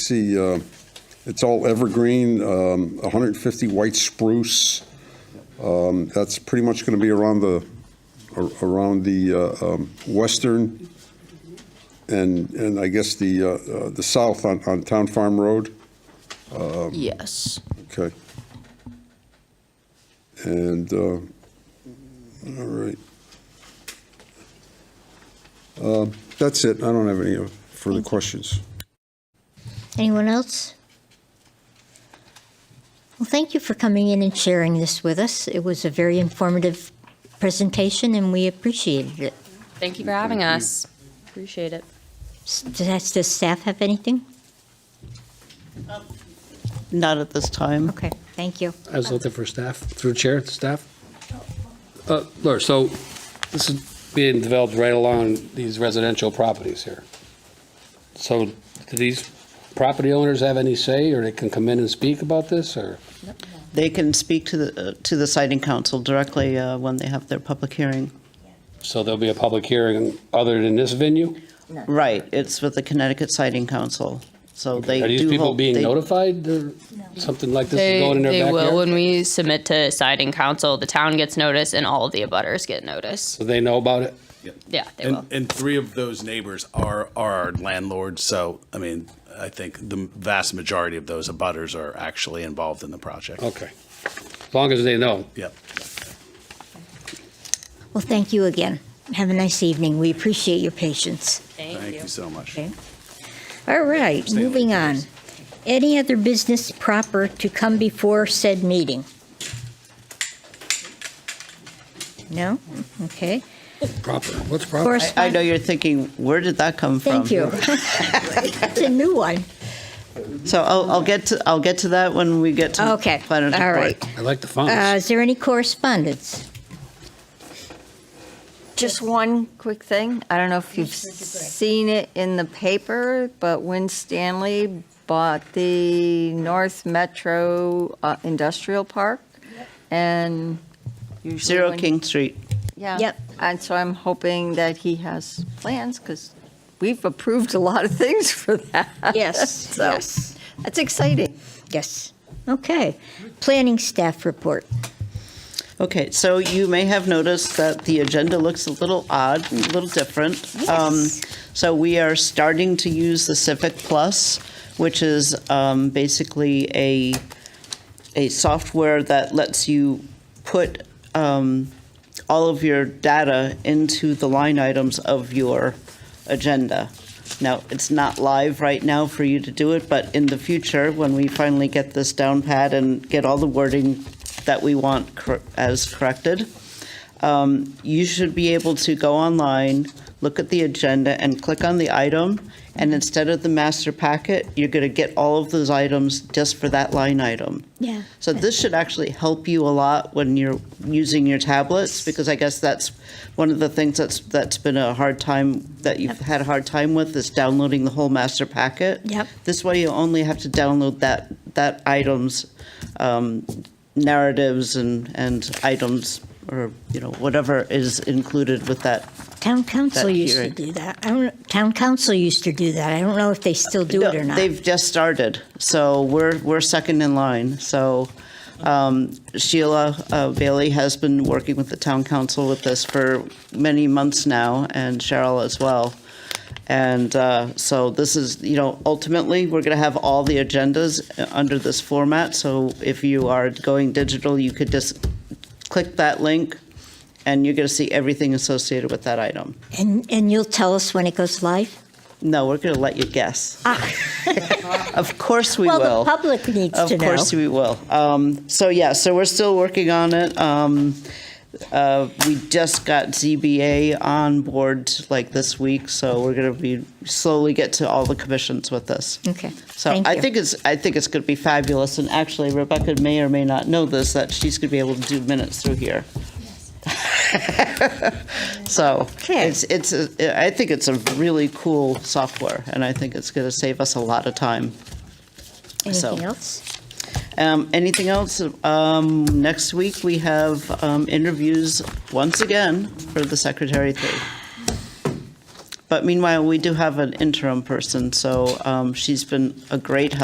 see, uh, it's all evergreen, um, 150 white spruce. Um, That's pretty much going to be around the, ar- around the uh, um, western and, and I guess the, uh, uh, the south on, on Town Farm Road. Yes. Okay. And, uh, all right. Uh, That's it. I don't have any further questions. Anyone else? Well, thank you for coming in and sharing this with us. It was a very informative presentation, and we appreciated it. Thank you for having us. Appreciate it. S- Does does staff have anything? Not at this time. Okay, thank you. I was looking for staff, through chair, staff. Uh, Laura, so this is being developed right along these residential properties here. So do these property owners have any say, or they can come in and speak about this, or? They can speak to the, uh, to the siting council directly uh, when they have their public hearing. So there'll be a public hearing other than this venue? Right, it's with the Connecticut Siting Council, so they do. Are these people hold- being they- notified, or something like this is They, going in they their will backyard? when we submit to siding council. The town gets notice, and all of the abutters get notice. So they know about it? Yeah, they will. And, and three of those neighbors are, are our landlords, so, I mean, I think the vast majority of those abutters are actually involved in the project. Okay. As long as they know. Yep. Well, thank you again. Have a nice evening. We appreciate your patience. Thank you so much. Okay. All right, moving on. Any other business proper to come before said meeting? No? Okay. Proper, what's proper? I- I Correspondence? know you're thinking, where did that come from? Thank you. It's a new one. So I'll, I'll get to, I'll get to that when we get to. Okay, all planner's report. right. I like the Uh, fonts. Is there any correspondence? Just one quick thing. I don't know if you've seen it in the paper, but Win Stanley bought the North Metro uh, Industrial Park and usually. Zero when- King Street. Yeah. Yep. And so I'm hoping that he has plans because we've approved a lot of things for that. Yes, So yes, that's exciting. yes. Okay. Planning staff report. Okay, so you may have noticed that the agenda looks a little odd, a little different. Um, So we are starting to use the Civic Plus, which is um, basically a, a software that lets you put um, all of your data into the line items of your agenda. Now, it's not live right now for you to do it, but in the future, when we finally get this down pat and get all the wording that we want cor- as corrected, um, you should be able to go online, look at the agenda, and click on the item, and instead of the master packet, you're going to get all of those items just for that line item. Yeah. So this should actually help you a lot when you're using your tablets, because I guess that's one of the things that's, that's been a hard time, that you've had a hard time with, is downloading the whole master packet. Yep. This way you only have to download that, that item's um, narratives and, and items, or, you know, whatever is included with that. Town council That used to hearing. do that. I don't, town council used to do that. I don't know if they still do it No, or not. They've just started, so we're, we're second in line. So um, Sheila uh, Bailey has been working with the town council with this for many months now, and Cheryl as well. And uh, so this is, you know, ultimately, we're going to have all the agendas uh, under this format. So if you are going digital, you could just click that link, and you're going to see everything associated with that item. And, and you'll tell us when it goes live? No, we're going to let you guess. Ah. Of course we will. Well, the public needs to know. Of course we will. Um, So, yeah, so we're still working on it. Um, uh, We just got ZBA on board like this week, so we're going to be, slowly get to all the commissions with this. Okay, So thank I you. think it's, I think it's going to be fabulous, and actually Rebecca may or may not know this, that she's going to be able to do minutes through here. So Okay. it's, it's, a- I think it's a really cool software, and I think it's going to save us a lot of time. so- Anything else? Um, Anything else? Um, Next week, we have um, interviews once again for the secretary thing. But meanwhile, we do have an interim person, so um, she's been a great help.